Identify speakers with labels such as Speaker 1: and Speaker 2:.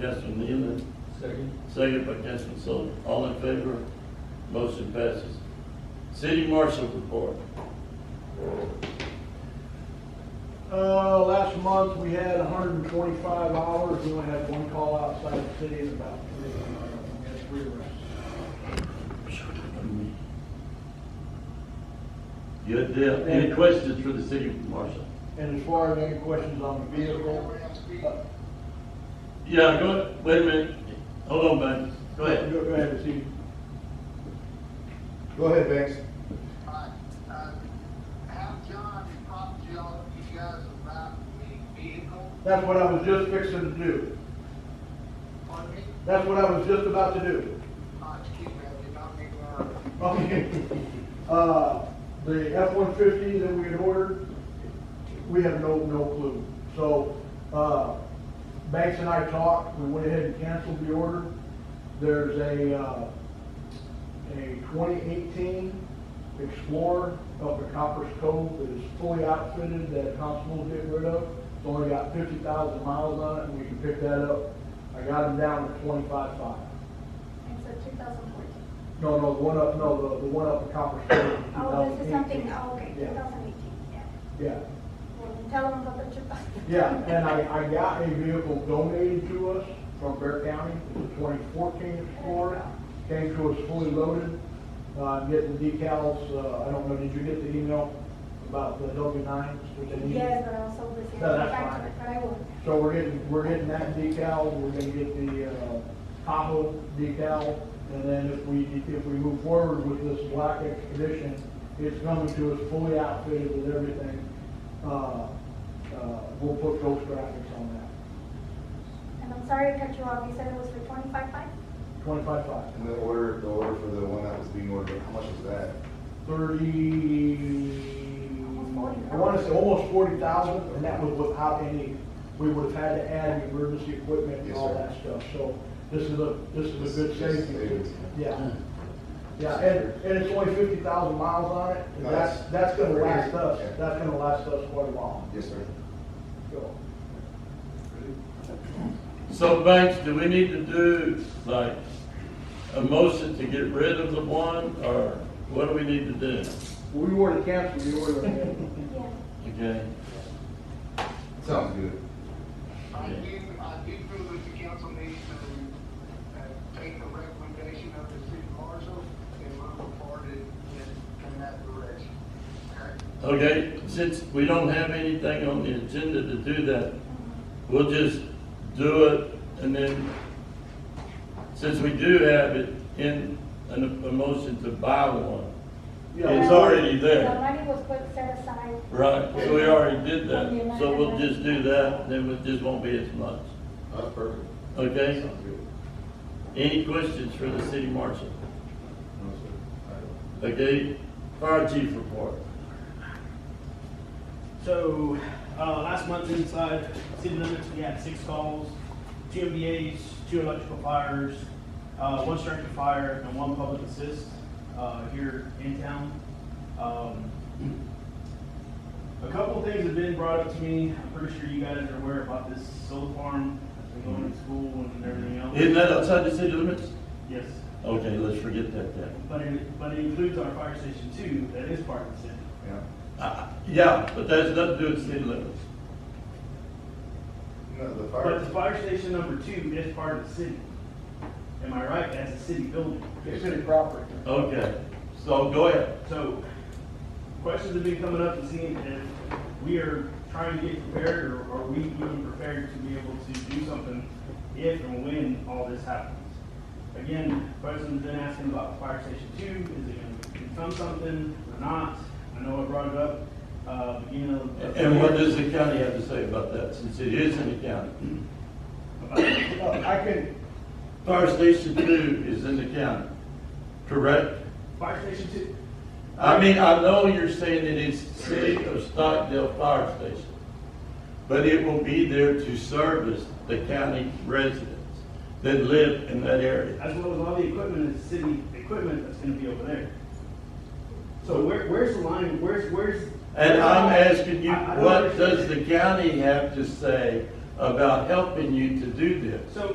Speaker 1: Councilman Nealon,
Speaker 2: Second.
Speaker 1: second by Councilman Sullivan. All in favor? Motion passes. City Marshal report.
Speaker 3: Uh, last month, we had hundred and twenty-five hours, we only had one call outside the city and about three, uh, we had three arrests.
Speaker 1: Good deal. Any questions for the City Marshal?
Speaker 3: And as far as any questions on the vehicle, uh,
Speaker 1: Yeah, go, ahead. wait a minute. Hold on, Ben. Go ahead.
Speaker 3: go ahead, it's you.
Speaker 4: Go ahead, Banks.
Speaker 5: Alright, uh, have John and Pop Joe, you guys about the vehicle,
Speaker 3: That's what I was just fixing to do.
Speaker 5: on me,
Speaker 3: That's what I was just about to do.
Speaker 5: uh, excuse me, I did not make a word.
Speaker 3: Okay. Uh, the F-150 that we had ordered, we have no, no clue. So, uh, Banks and I talked, we went ahead and canceled the order. There's a, uh, a twenty eighteen Explorer up at Copper's Cove that is fully outfitted that constables get rid of. It's only got fifty thousand miles on it, and we can pick that up. I got them down to twenty-five five.
Speaker 6: And so 2014.
Speaker 3: No, no, the one up, no, the, the one up in Copper Springs. in
Speaker 6: Oh, this is
Speaker 3: 2018.
Speaker 6: something, oh, okay,
Speaker 3: Yeah,
Speaker 6: 2018, yeah.
Speaker 3: yeah,
Speaker 6: Well, tell them about the 2000.
Speaker 3: yeah, and I, I got a vehicle donated to us from Bear County, it's a twenty fourteen Explorer, came to us fully loaded. Uh, I'm getting decals, uh, I don't know, did you get the email about the W nines?
Speaker 6: Yes, but also this is.
Speaker 3: No, that's fine.
Speaker 6: But I will,
Speaker 3: So we're getting, we're getting that decal, we're gonna get the, uh, Tahoe decal, and then if we, if we move forward with this black expedition, it's coming to us fully outfitted with everything. Uh, uh, we'll put ghost graphics on that,
Speaker 6: and I'm sorry to cut you off, you said it was for 25.5?
Speaker 3: twenty-five five,
Speaker 4: And the order, the order for the one that was being ordered, how much was that?
Speaker 3: thirty,
Speaker 6: Almost forty.
Speaker 3: I wanna say almost forty thousand, and that was without any, we would've had to add emergency equipment and
Speaker 4: Yes,
Speaker 3: all
Speaker 4: sir.
Speaker 3: that stuff, so this is a, this is a good
Speaker 4: This- this
Speaker 3: safety.
Speaker 4: savings.
Speaker 3: Yeah. Yeah, and, and it's only fifty thousand miles on it, and that's, that's gonna last us, that's gonna last us quite a while.
Speaker 4: Yes, sir.
Speaker 3: So,
Speaker 1: So Banks, do we need to do like a motion to get rid of the one or what do we need to do?
Speaker 3: We were to cancel the order.
Speaker 6: Yeah.
Speaker 1: Okay.
Speaker 4: Sounds good.
Speaker 5: I did, I did feel that the council needs to, uh, take the recommendation of the city marshal and move forward in, in that direction. Okay?
Speaker 1: Okay, since we don't have anything on the agenda to do that, we'll just do it and then, since we do have it in, an a motion to buy one. It's
Speaker 3: Yeah,
Speaker 6: all-
Speaker 1: already
Speaker 6: The
Speaker 1: there,
Speaker 6: money was put set aside.
Speaker 1: right? So we already did that, so we'll just do that, then it just won't be as much.
Speaker 4: That's perfect.
Speaker 1: Okay?
Speaker 4: Sounds good.
Speaker 1: Any questions for the city marshal?
Speaker 4: No, sir. All right.
Speaker 1: Okay, fire chief report.
Speaker 7: So, uh, last month inside city limits, we had six calls, two MBAs, two electrical fires, uh, one structure fire, and one public assist, uh, here in town. Um, a couple of things have been brought up to me, I'm pretty sure you guys are aware about this solar farm, that's been going to school and everything else.
Speaker 1: Isn't that outside the city limits?
Speaker 7: Yes,
Speaker 1: Okay, let's forget that then.
Speaker 7: but it, but it includes our fire station too, that is part of the city.
Speaker 4: Yeah.
Speaker 1: Uh, Yeah, but that's nothing to do with city limits.
Speaker 4: No, the
Speaker 7: But the
Speaker 4: fire.
Speaker 7: fire station number two is part of the city. Am I right? That's a city building.
Speaker 3: it's city property.
Speaker 1: Okay, so go ahead.
Speaker 7: So, questions have been coming up and seeing if we are trying to get prepared or are we even prepared to be able to do something if and when all this happens? Again, questions been asking about fire station two, is it gonna become something or not? I know I brought it up, uh, beginning of.
Speaker 1: And what does the county have to say about that, since it is in the county?
Speaker 7: About-
Speaker 3: Uh, I can,
Speaker 1: Fire Station Two is in the county, correct?
Speaker 7: Fire station two,
Speaker 1: I mean, I know you're saying it is City of Stockdale Fire Station, but it will be there to service the county residents that live in that area.
Speaker 7: as well as all the equipment is city equipment that's gonna be over there. So where, where's the line, where's, where's?
Speaker 1: And I'm asking you,
Speaker 7: I- I don't
Speaker 1: what does
Speaker 7: understand.
Speaker 1: the county have to say about helping you to do this?
Speaker 7: So